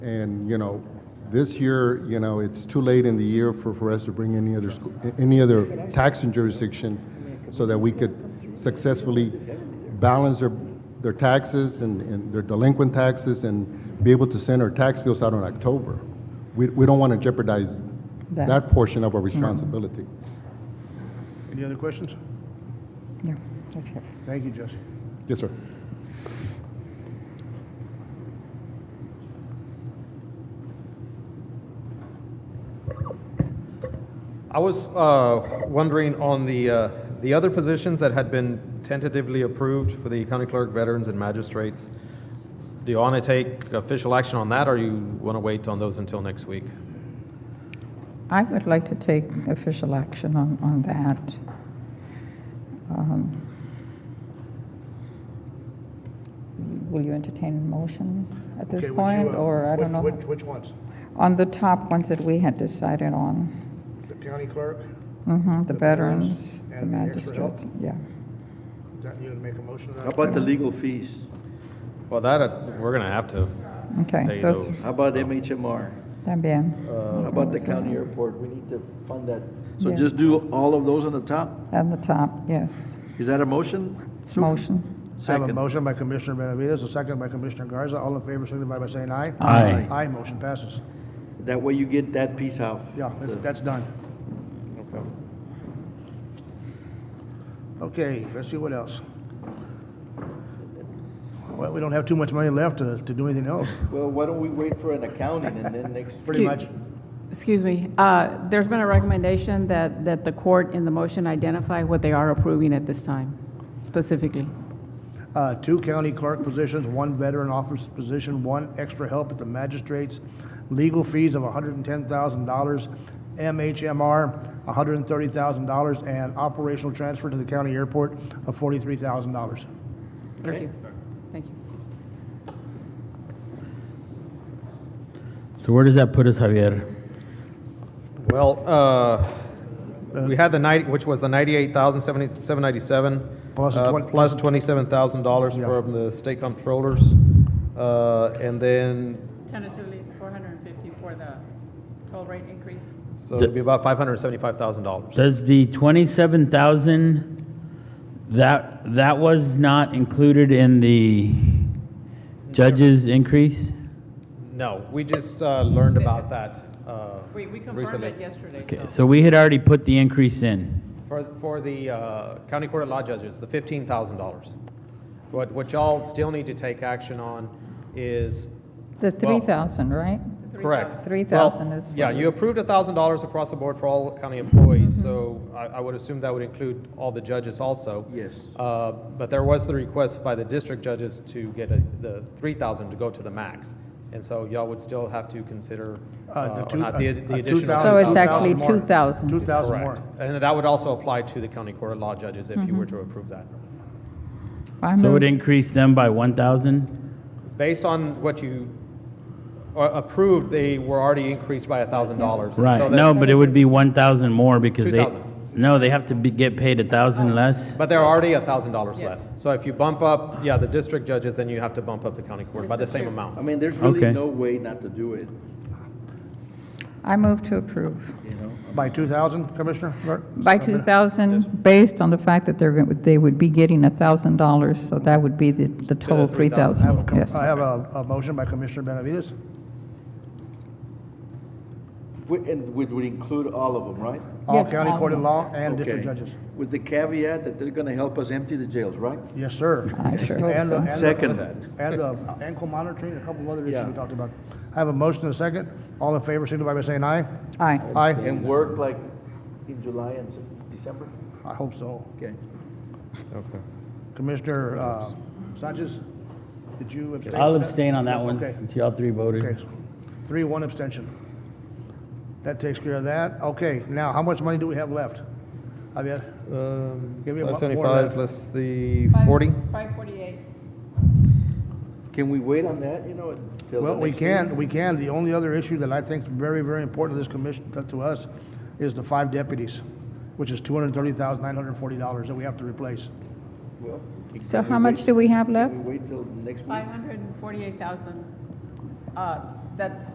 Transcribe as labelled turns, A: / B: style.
A: And, you know, this year, you know, it's too late in the year for, for us to bring any other, school, any other taxing jurisdiction so that we could successfully balance their, their taxes and, and their delinquent taxes and be able to send our tax bills out in October. We, we don't want to jeopardize
B: That.
A: that portion of our responsibility.
C: Any other questions?
B: Yeah, that's it.
C: Thank you, Jesse.
A: Yes, sir.
D: I was uh, wondering on the, uh, the other positions that had been tentatively approved for the county clerk, veterans, and magistrates. Do you want to take official action on that, or you want to wait on those until next week?
B: I would like to take official action on, on that. Um, Will you entertain a motion at this
C: Okay, would you,
B: point,
C: uh,
B: or I
C: which-
B: don't know?
C: Which, which ones?
B: On the top ones that we had decided on,
C: The county clerk?
B: hmm the
C: The veterans
B: veterans, the
C: and the extra help?
B: magistrates, yeah.
C: Is that you to make a motion
E: How
C: on that?
E: about the legal fees?
D: Well, that, uh, we're going to have to.
B: Okay,
D: Hey,
B: those,
D: those-
E: How about MHMR?
B: también,
E: Uh, How about the county airport? We need to fund that. So
B: Yeah.
E: just do all of those on the top?
B: at the top, yes.
E: Is that a motion?
B: It's motion.
C: I have a
E: Second.
C: motion by Commissioner Benavides, a second by Commissioner Garza. All in favor, signify by saying aye.
E: Aye.
C: Aye, motion passes.
E: That way you get that piece out.
C: Yeah, that's, that's done.
E: Okay.
C: Okay, let's see what else. Well, we don't have too much money left to, to do anything else.
E: Well, why don't we wait for an accounting and then next?
C: Pretty
F: Excuse-
C: much.
F: Excuse me, uh, there's been a recommendation that, that the court in the motion identify what they are approving at this time, specifically.
C: Uh, two county clerk positions, one veteran office position, one extra help at the magistrates, legal fees of hundred and ten thousand dollars, MHMR, hundred and thirty thousand dollars, and operational transfer to the county airport of forty-three thousand dollars.
F: Thank you. Thank you.
G: So where does that put us, Javier?
D: Well, uh, we had the 90, which was the 98,797.
C: Plus the
D: uh,
C: twen-
D: Plus $27,000
C: Yeah.
D: from the state comptrollers. Uh, And then,
F: Tentatively, 450 for the toll rate increase.
D: so it'd be about $575,000.
G: Does the twenty-seven thousand, that, that was not included in the judge's increase?
D: No, we just uh, learned about that uh,
F: We, we confirmed
D: recently.
F: it yesterday,
G: Okay,
F: so.
G: so we had already put the increase in.
D: For, for the uh, county court of law judges, the fifteen thousand dollars. What, what y'all still need to take action on is,
B: The
D: Well-
B: 3,000, right?
D: correct.
B: 3,000
D: Well,
B: is for
D: Yeah, you approved a thousand dollars across the board for all county employees, so I, I would assume that would include all the judges also.
E: Yes.
D: Uh, But there was the request by the district judges to get a- the three thousand to go to the max. And so y'all would still have to
C: Uh,
D: consider
C: the
D: uh, or
C: two-
D: not the
C: uh,
D: the
C: uh,
D: additional.
C: 2,000
B: So it's actually 2,000.
C: Two thousand
D: Correct.
C: more.
D: And that would also apply to the county court of law judges if you were to approve that.
B: I
G: So
B: move-
G: it increased them by one thousand?
D: Based on what you uh, approved, they were already increased by $1,000. So
G: Right,
D: that-
G: no, but it would be one thousand more because they,
D: 2,000.
G: no, they have to be, get paid a thousand less?
D: But they're already $1,000
F: Yes.
D: less. So if you bump up, yeah, the district judges, then you have to bump up the county court by the same
E: I
D: amount.
E: mean, there's really
G: Okay.
E: no way not to do it,
B: I move to approve.
E: you know?
C: By two thousand, Commissioner? Clerk?
B: By 2,000, based on the fact that they're, going- they would be getting $1,000, so that would be the, the total
D: the 3,000
C: I have a
B: 3,000,
C: com-
B: yes.
C: I have a, a motion by Commissioner Benavides.
E: We- And would, would include all of them, right?
C: All
B: Yes,
C: county
B: all
C: court
B: of
C: of law and district
E: Okay.
C: judges.
E: With the caveat that they're gonna help us empty the jails, right?
C: Yes, sir.
B: I sure hope
C: And the-
B: so.
C: and the-
E: Second.
C: And the ankle monitoring, a couple of other issues
E: Yeah.
C: we talked about. I have a motion and a second. All in favor, signify by saying aye.
B: Aye.
C: Aye.
E: And work like in July and Sep- December?
C: I hope so.
E: Okay.
C: Commissioner uh, Sanchez, did you abstain?
G: I'll abstain on that one,
C: Okay.
G: since y'all three
C: Okay.
G: voted.
C: Three, one abstention. That takes care of that. Okay, now, how much money do we have left? Javier? Um, Give me a mo- more 575 left.
D: less the 40?
F: 548.
E: Can we wait on that, you know, until the
C: Well, we
E: next meeting?
C: can, we can. The only other issue that I think is very, very important to this commission, to- to us, is the five deputies, which is two hundred and thirty thousand, nine hundred and forty dollars that we have to replace.
E: Well, can
B: So
E: we
B: how much
E: wait-
B: do we have
E: can
B: left?
E: we wait till next week?
F: 548,000, uh, That's,